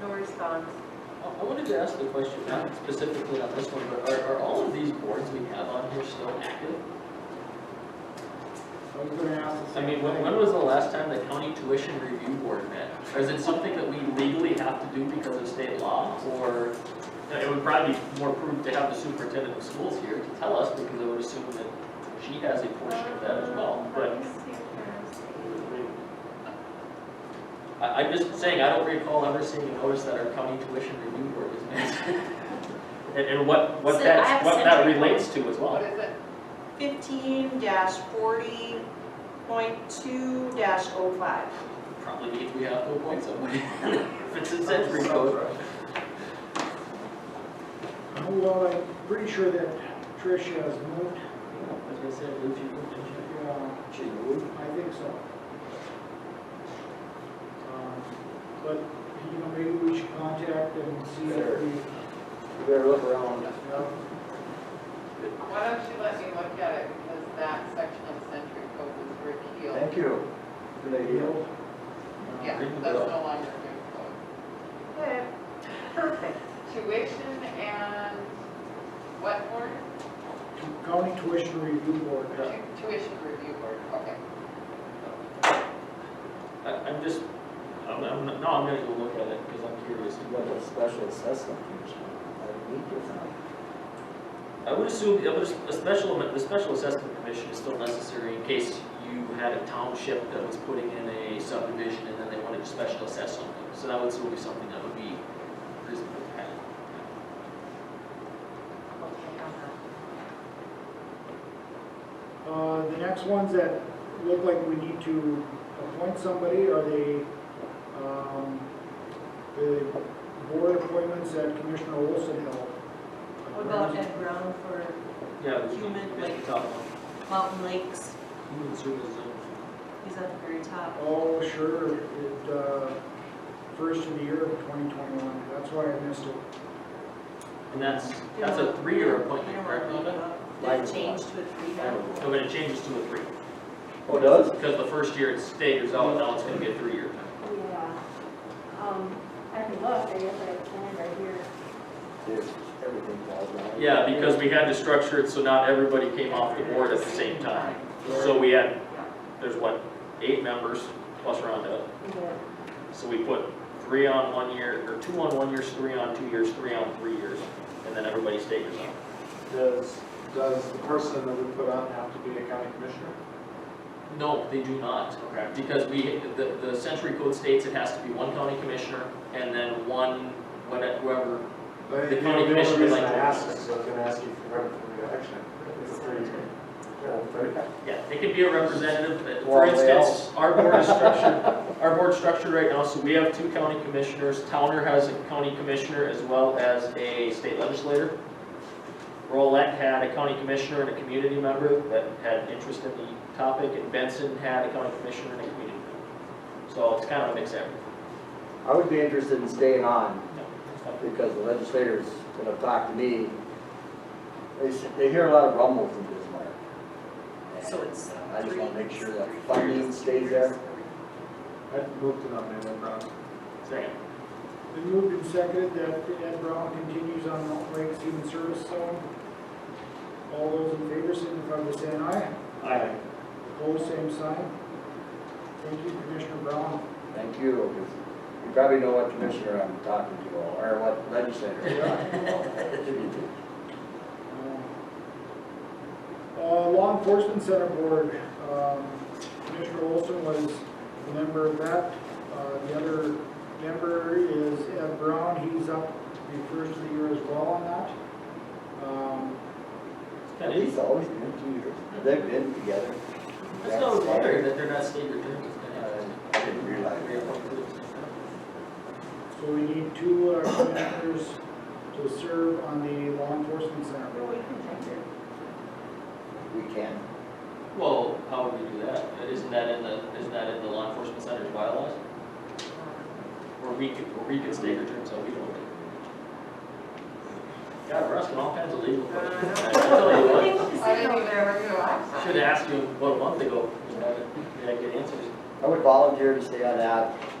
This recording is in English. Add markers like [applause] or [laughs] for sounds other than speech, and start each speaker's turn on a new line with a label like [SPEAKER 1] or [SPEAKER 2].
[SPEAKER 1] no response.
[SPEAKER 2] I I wanted to ask the question, not specifically on this one, but are, are all of these boards we have on here still active?
[SPEAKER 3] I was gonna ask the
[SPEAKER 2] I
[SPEAKER 3] same
[SPEAKER 2] mean, when,
[SPEAKER 3] thing.
[SPEAKER 2] when was the last time the county tuition review board met? Or is it something that we legally have to do because of state law, or it would probably be more prudent to have the superintendent of schools here to tell us, because I would assume that she has a portion of that as well,
[SPEAKER 1] Um,
[SPEAKER 2] but
[SPEAKER 1] let me see if there's
[SPEAKER 2] I, I'm just saying, I don't recall ever seeing a notice that our county tuition review board was met. And, and what, what
[SPEAKER 4] So
[SPEAKER 2] that,
[SPEAKER 4] I've
[SPEAKER 2] what
[SPEAKER 4] sent
[SPEAKER 2] that
[SPEAKER 4] you-
[SPEAKER 2] relates to as well.
[SPEAKER 5] What is it?
[SPEAKER 1] Fifteen dash forty point two dash oh five.
[SPEAKER 2] Probably means we have to appoint somebody, [laughs] if it's a century code.
[SPEAKER 3] Well, I'm pretty sure that Tricia has moved,
[SPEAKER 2] As I said, Luke, you can finish it.
[SPEAKER 3] yeah,
[SPEAKER 6] She moved.
[SPEAKER 3] I think so. Um, But, you know, maybe we should contact and see if we, uh,
[SPEAKER 6] You better look around.
[SPEAKER 3] yeah,
[SPEAKER 5] Why don't you let me look at it, because that section of century code was repealed.
[SPEAKER 6] Thank you. Good idea.
[SPEAKER 3] deal.
[SPEAKER 5] Yeah, that's no longer new
[SPEAKER 1] Good, perfect.
[SPEAKER 5] code. Tuition and what board?
[SPEAKER 3] County Tuition Review Board.
[SPEAKER 5] Tu- Tuition review board, okay.
[SPEAKER 2] I, I'm just, I'm, I'm, no, I'm gonna go look at it, because I'm curious.
[SPEAKER 6] You got a special assessment commission. I need your time.
[SPEAKER 2] I would assume, I would, as- a special, the special assessment commission is still necessary in case you had a township that was putting in a subdivision and then they wanted to special assess something. So that would still be something that would be reasonable to have.
[SPEAKER 3] Uh, the next ones that look like we need to appoint somebody are the, um, the board appointments that Commissioner Olson held.
[SPEAKER 4] What about Ed Brown for
[SPEAKER 2] Yeah. we-
[SPEAKER 4] Human,
[SPEAKER 2] we
[SPEAKER 4] like-
[SPEAKER 2] can talk about
[SPEAKER 4] Mountain Lakes?
[SPEAKER 2] Human services.
[SPEAKER 4] He's at the very top.
[SPEAKER 3] Oh, sure, it, uh, first of the year of twenty twenty-one, that's why I missed it.
[SPEAKER 2] And that's, that's a three-year appointment, correct, Linda?
[SPEAKER 4] They've changed to a three
[SPEAKER 6] I
[SPEAKER 4] now.
[SPEAKER 6] don't
[SPEAKER 2] So
[SPEAKER 6] know.
[SPEAKER 2] when it changes to a three,
[SPEAKER 6] Oh, does?
[SPEAKER 2] because the first year it's staggered out, now it's gonna be a three-year.
[SPEAKER 7] Yeah, um, I can look, I guess I have a plan right here.
[SPEAKER 6] There's everything falls down.
[SPEAKER 2] Yeah, because we had to structure it so not everybody came off the board at the same time. So we had, there's what, eight members plus Rhonda. So we put three on one year, or two on one years, three on two years, three on three years, and then everybody stays on.
[SPEAKER 8] Does, does the person that we put on have to be a county commissioner?
[SPEAKER 2] No, they do not,
[SPEAKER 8] Okay.
[SPEAKER 2] because we, the, the century code states it has to be one county commissioner and then one, whatever, whoever.
[SPEAKER 8] But
[SPEAKER 2] The
[SPEAKER 8] you know,
[SPEAKER 2] county
[SPEAKER 8] the
[SPEAKER 2] commissioner
[SPEAKER 8] only reason
[SPEAKER 2] might
[SPEAKER 8] I
[SPEAKER 2] do it.
[SPEAKER 8] asked is I was gonna ask you for rep- for reelection. It's a three-year. Yeah, three.
[SPEAKER 2] Yeah, it could be a representative, but for
[SPEAKER 6] Or a
[SPEAKER 2] instance, our board is structured, our board's structured right now, so we have two county commissioners. Towner has a county commissioner as well as a state legislator. Rolette had a county commissioner and a community member that had interest in the topic, and Benson had a county commissioner and a community member. So it's kind of a mixed average.
[SPEAKER 6] I would be interested in staying on
[SPEAKER 2] No, it's not-
[SPEAKER 6] because the legislators that have talked to me, they, s- they hear a lot of rumbles in Bismarck. And
[SPEAKER 4] So it's uh,
[SPEAKER 6] I just
[SPEAKER 4] three.
[SPEAKER 6] wanna make sure that
[SPEAKER 4] Three
[SPEAKER 6] funding
[SPEAKER 4] years,
[SPEAKER 6] stays
[SPEAKER 4] three years.
[SPEAKER 6] there.
[SPEAKER 8] I'd move to nominate Lynn Brown.
[SPEAKER 2] Second.
[SPEAKER 3] Been moved and seconded that Ed Brown continues on Mount Lakes Human Service Zone. All those in favor, signify by saying aye.
[SPEAKER 2] Aye.
[SPEAKER 3] Opposed, same sign. Thank you, Commissioner Brown.
[SPEAKER 6] Thank you. 'cause You probably know what commissioner I'm talking to or what legislator.
[SPEAKER 4] [laughs]
[SPEAKER 3] Uh, Law Enforcement Center Board, um, Commissioner Olson was a member of that. Uh, The other member is Ed Brown, he's up the first of the year as well on that. Um,
[SPEAKER 2] That is,
[SPEAKER 6] He's always been two years. They've been together.
[SPEAKER 2] that's no wonder that they're not staggered terms.
[SPEAKER 6] Uh, I didn't realize.
[SPEAKER 3] So we need two uh, [coughs] commissioners to serve on the Law Enforcement Center
[SPEAKER 1] No,
[SPEAKER 3] Board.
[SPEAKER 1] we can check it.
[SPEAKER 6] We can.
[SPEAKER 2] Well, how would we do that? Isn't that in the, isn't that in the law enforcement center's bylaws? Or we could, or we could state your terms, so we don't. God, we're asking all kinds of legal questions. I tell you
[SPEAKER 1] [laughs]
[SPEAKER 2] what,
[SPEAKER 5] I didn't even ever realize.
[SPEAKER 2] I Should have asked you, what, a month ago, you know, did I get answers?
[SPEAKER 6] I would volunteer to stay on that.